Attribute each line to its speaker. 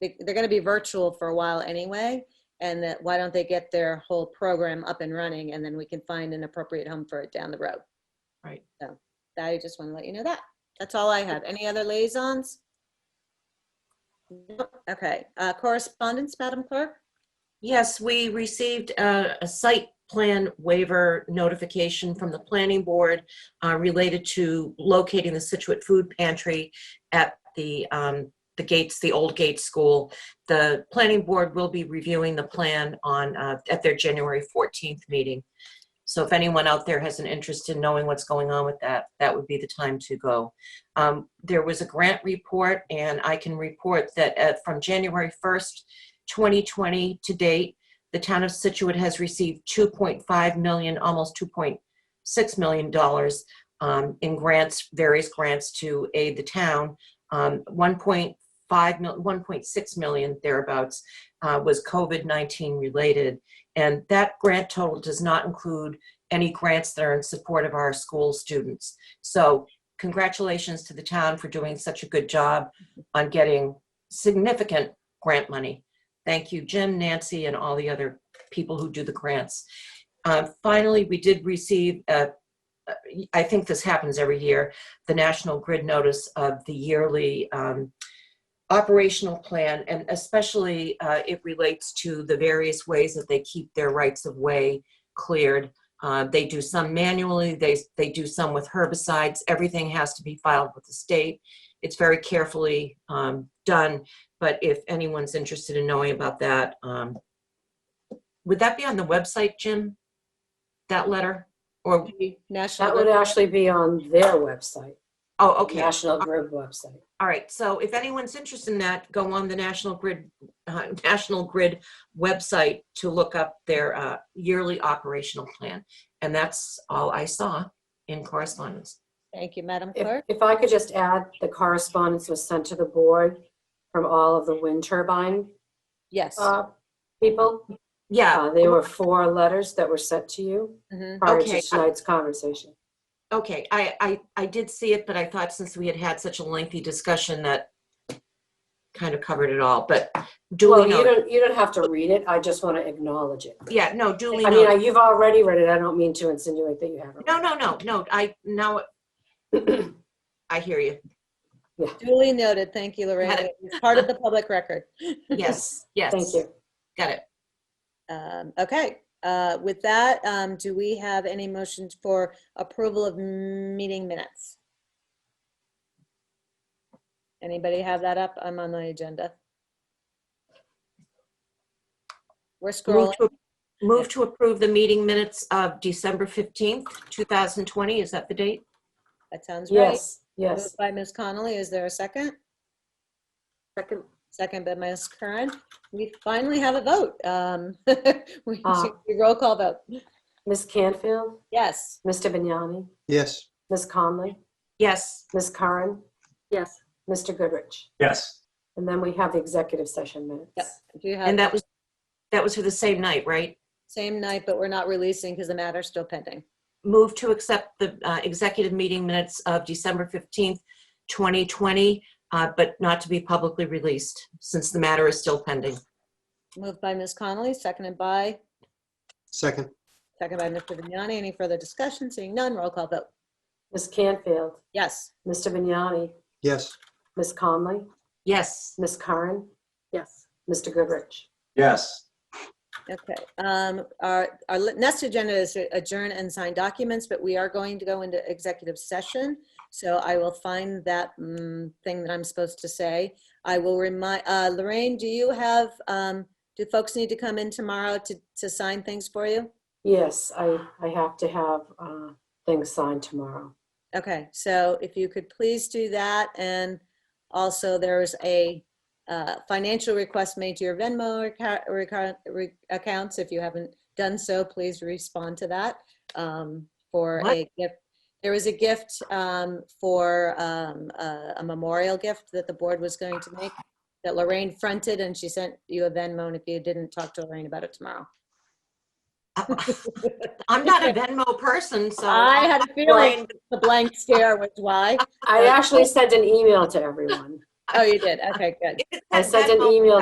Speaker 1: they- they're going to be virtual for a while anyway. And that, why don't they get their whole program up and running and then we can find an appropriate home for it down the road.
Speaker 2: Right.
Speaker 1: So I just want to let you know that. That's all I have. Any other liaisons? Nope. Okay, Uh, correspondence, Madam Clerk?
Speaker 2: Yes, we received uh, a site plan waiver notification from the planning board uh, related to locating the Situate Food Pantry at the, um, the gates, the old gate school. The planning board will be reviewing the plan on, uh, at their January 14th meeting. So if anyone out there has an interest in knowing what's going on with that, that would be the time to go. Um, There was a grant report, and I can report that uh, from January 1st 2020 to date, the town of Situate has received 2.5 million, almost 2.6 million dollars um, in grants, various grants to aid the town. Um, 1.5 mil, 1.6 million thereabouts uh, was COVID-19 related. And that grant total does not include any grants that are in support of our school students. So congratulations to the town for doing such a good job on getting significant grant money. Thank you, Jim, Nancy, and all the other people who do the grants. Uh, Finally, we did receive, uh, uh, I think this happens every year, the National Grid notice of the yearly um, operational plan, and especially uh, it relates to the various ways that they keep their rights of way cleared. Uh, They do some manually, they, they do some with herbicides. Everything has to be filed with the state. It's very carefully um, done but if anyone's interested in knowing about that, um, would that be on the website, Jim? That letter? Or,
Speaker 1: National.
Speaker 3: That would actually be on their website,
Speaker 2: oh, okay,
Speaker 3: National Grid website.
Speaker 2: all right. So if anyone's interested in that, go on the National Grid, uh, National Grid website to look up their uh, yearly operational plan. And that's all I saw in correspondence.
Speaker 1: Thank you, Madam
Speaker 3: If
Speaker 1: Clerk.
Speaker 3: if I could just add, the correspondence was sent to the board from all of the wind turbine
Speaker 1: Yes.
Speaker 3: uh, people.
Speaker 2: Yeah,
Speaker 3: Uh, There were four letters that were sent to you
Speaker 1: Mhm.
Speaker 3: prior
Speaker 2: Okay.
Speaker 3: to tonight's conversation.
Speaker 2: okay. I, I, I did see it, but I thought since we had had such a lengthy discussion that kind of covered it all, but
Speaker 3: Well,
Speaker 2: duly
Speaker 3: you
Speaker 2: noted.
Speaker 3: don't, you don't have to read it, I just want to acknowledge it.
Speaker 2: Yeah, no, duly
Speaker 3: I mean, I-
Speaker 2: noted.
Speaker 3: you've already read it, I don't mean to insinuate that you haven't.
Speaker 2: No, no, no, no, I, now, I hear you.
Speaker 1: Duly noted. Thank you, Lorraine. It's Part of the public record.
Speaker 2: Yes, yes.
Speaker 3: Thank you.
Speaker 2: Got it.
Speaker 1: Um, Okay, uh, with that, um, do we have any motions for approval of meeting minutes? Anybody have that up? I'm on the agenda. We're
Speaker 2: Move
Speaker 1: scrolling.
Speaker 2: to- Move to approve the meeting minutes of December 15th, 2020. Is that the date?
Speaker 1: That sounds right.
Speaker 3: Yes, yes.
Speaker 1: Moved By Ms. Connolly, is there a second?
Speaker 3: Second.
Speaker 1: Second by Ms. Curran. We finally have a vote. Um, We
Speaker 2: Ah.
Speaker 3: Uh.
Speaker 1: we roll call vote.
Speaker 3: Ms. Canfield,
Speaker 1: Yes.
Speaker 3: Mr. Vignani,
Speaker 4: Yes.
Speaker 3: Ms. Conley,
Speaker 2: Yes.
Speaker 3: Ms. Curran,
Speaker 5: Yes.
Speaker 3: Mr. Goodrich.
Speaker 6: Yes,
Speaker 3: And then we have the executive session
Speaker 1: Yep.
Speaker 3: minutes.
Speaker 1: Do you have
Speaker 2: And that was, that was for the same night, right?
Speaker 1: same night, but we're not releasing because the matter's still pending?
Speaker 2: Move to accept the uh, executive meeting minutes of December 15th, 2020, uh, but not to be publicly released since the matter is still pending.
Speaker 1: Moved by Ms. Connolly, seconded by,
Speaker 4: Second.
Speaker 1: seconded by Mr. Vignani. Any further discussion? Seeing none, roll call vote.
Speaker 3: Ms. Canfield,
Speaker 1: Yes.
Speaker 3: Mr. Vignani,
Speaker 4: Yes.
Speaker 3: Ms. Conley,
Speaker 2: Yes.
Speaker 3: Ms. Curran,
Speaker 5: Yes.
Speaker 3: Mr. Goodrich.
Speaker 6: yes.
Speaker 1: Okay. Um, Our, our li- next agenda is to adjourn and sign documents, but we are going to go into executive session. So I will find that mm, thing that I'm supposed to say. I will remind, uh, Lorraine, do you have, um, do folks need to come in tomorrow to, to sign things for you?
Speaker 3: Yes, I, I have to have uh, things signed tomorrow.
Speaker 1: Okay, so if you could please do that, and also there is a uh, financial request made to your Venmo reca- reca- re- accounts. If you haven't done so, please respond to that um, for
Speaker 2: What?
Speaker 1: a gift. There was a gift um, for um, a a memorial gift that the board was going to make that Lorraine fronted, and she sent you a Venmo, and if you didn't, talk to Lorraine about it tomorrow.
Speaker 2: I'm not a Venmo person, so.
Speaker 1: I had a feeling the blank stare was why.
Speaker 3: I actually sent an email to everyone.
Speaker 1: Oh, you did? Okay, good.
Speaker 2: If it
Speaker 3: I
Speaker 2: said
Speaker 3: sent an
Speaker 2: memo,
Speaker 3: email